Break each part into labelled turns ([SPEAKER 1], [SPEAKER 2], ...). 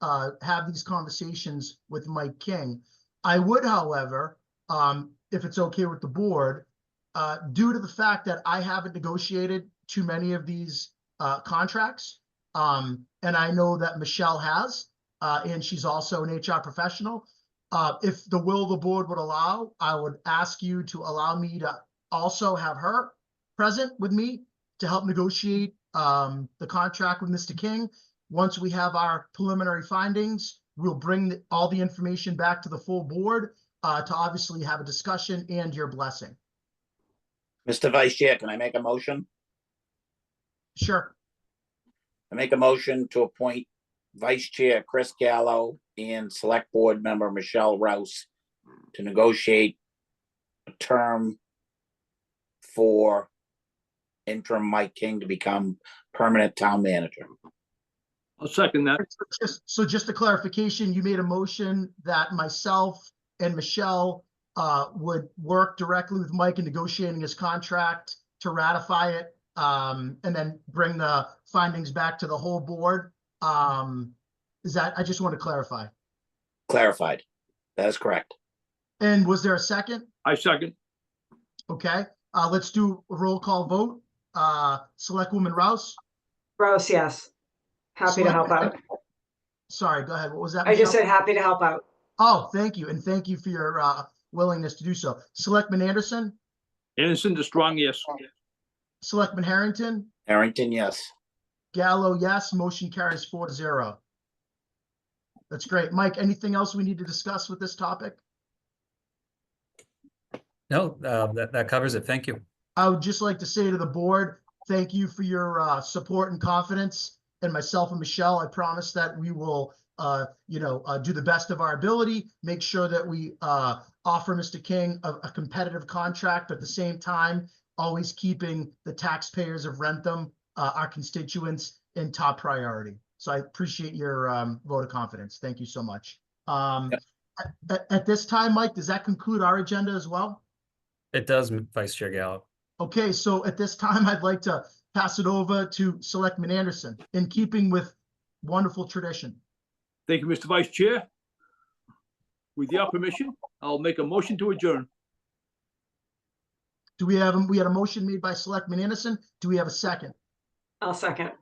[SPEAKER 1] uh, have these conversations with Mike King. I would, however, um, if it's okay with the board, uh, due to the fact that I haven't negotiated too many of these uh, contracts, um, and I know that Michelle has, uh, and she's also an HR professional. Uh, if the will of the board would allow, I would ask you to allow me to also have her present with me to help negotiate um, the contract with Mr. King. Once we have our preliminary findings, we'll bring the- all the information back to the full board uh, to obviously have a discussion and your blessing.
[SPEAKER 2] Mr. Vice Chair, can I make a motion?
[SPEAKER 1] Sure.
[SPEAKER 2] I make a motion to appoint Vice Chair Chris Gallo and Select Board Member Michelle Rouse to negotiate a term for interim Mike King to become permanent town manager.
[SPEAKER 3] I'll second that.
[SPEAKER 1] Just, so just a clarification, you made a motion that myself and Michelle uh, would work directly with Mike in negotiating his contract to ratify it, um, and then bring the findings back to the whole board. Um, is that, I just want to clarify.
[SPEAKER 2] Clarified. That is correct.
[SPEAKER 1] And was there a second?
[SPEAKER 3] I second.
[SPEAKER 1] Okay, uh, let's do a roll call vote. Uh, Selectwoman Rouse,
[SPEAKER 4] Gross, yes. Happy to help out.
[SPEAKER 1] sorry, go ahead. What was that?
[SPEAKER 4] I
[SPEAKER 1] Michelle?
[SPEAKER 4] just said happy to help out.
[SPEAKER 1] Oh, thank you, and thank you for your, uh, willingness to do so. Selectman Anderson?
[SPEAKER 3] Anderson's a strong yes.
[SPEAKER 1] Selectman Harrington,
[SPEAKER 2] Harrington, yes.
[SPEAKER 1] Gallo, yes, motion carries four to zero. That's great. Mike, anything else we need to discuss with this topic?
[SPEAKER 5] No, uh, that, that covers it. Thank you.
[SPEAKER 1] I would just like to say to the board, thank you for your uh, support and confidence. And myself and Michelle, I promise that we will, uh, you know, uh, do the best of our ability, make sure that we uh, offer Mr. King a, a competitive contract, but at the same time, always keeping the taxpayers of Rentham, uh, our constituents, in top priority. So I appreciate your um, vote of confidence. Thank you so much. Um,
[SPEAKER 2] Yep.
[SPEAKER 1] at- at- at this time, Mike, does that conclude our agenda as well?
[SPEAKER 5] It does, M- Vice Chair Gallo.
[SPEAKER 1] Okay, so at this time, I'd like to pass it over to Selectman Anderson, in keeping with wonderful tradition.
[SPEAKER 3] Thank you, Mr. Vice Chair. With your permission, I'll make a motion to adjourn.
[SPEAKER 1] Do we have, we had a motion made by Selectman Anderson. Do we have a second?
[SPEAKER 4] I'll second.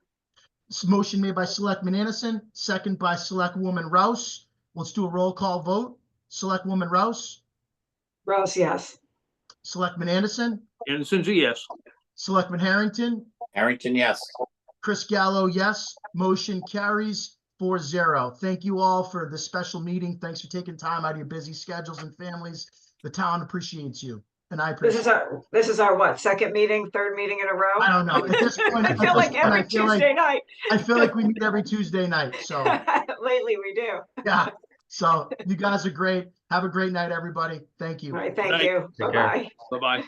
[SPEAKER 1] This motion made by Selectman Anderson, second by Selectwoman Rouse. Let's do a roll call vote. Selectwoman Rouse,
[SPEAKER 4] Gross, yes.
[SPEAKER 1] Selectman Anderson,
[SPEAKER 3] Anderson's a yes.
[SPEAKER 1] Selectman Harrington,
[SPEAKER 2] Harrington, yes.
[SPEAKER 1] Chris Gallo, yes. Motion carries 4-0. Thank you all for this special meeting. Thanks for taking time out of your busy schedules and families. The town appreciates you, and I
[SPEAKER 4] This
[SPEAKER 1] appreciate.
[SPEAKER 4] is our, this is our what, second meeting, third meeting in a row?
[SPEAKER 1] I don't know. At this point,
[SPEAKER 4] I
[SPEAKER 1] at this
[SPEAKER 4] feel like
[SPEAKER 1] point, I
[SPEAKER 4] every
[SPEAKER 1] feel like-
[SPEAKER 4] Tuesday night.
[SPEAKER 1] I feel like we meet every Tuesday night. So,
[SPEAKER 4] Lately, we do. All
[SPEAKER 1] yeah. So you guys are great. Have a great night, everybody. Thank you.
[SPEAKER 4] right, thank
[SPEAKER 3] Right.
[SPEAKER 4] you.
[SPEAKER 5] Take care.
[SPEAKER 4] Bye-bye.
[SPEAKER 3] Bye-bye.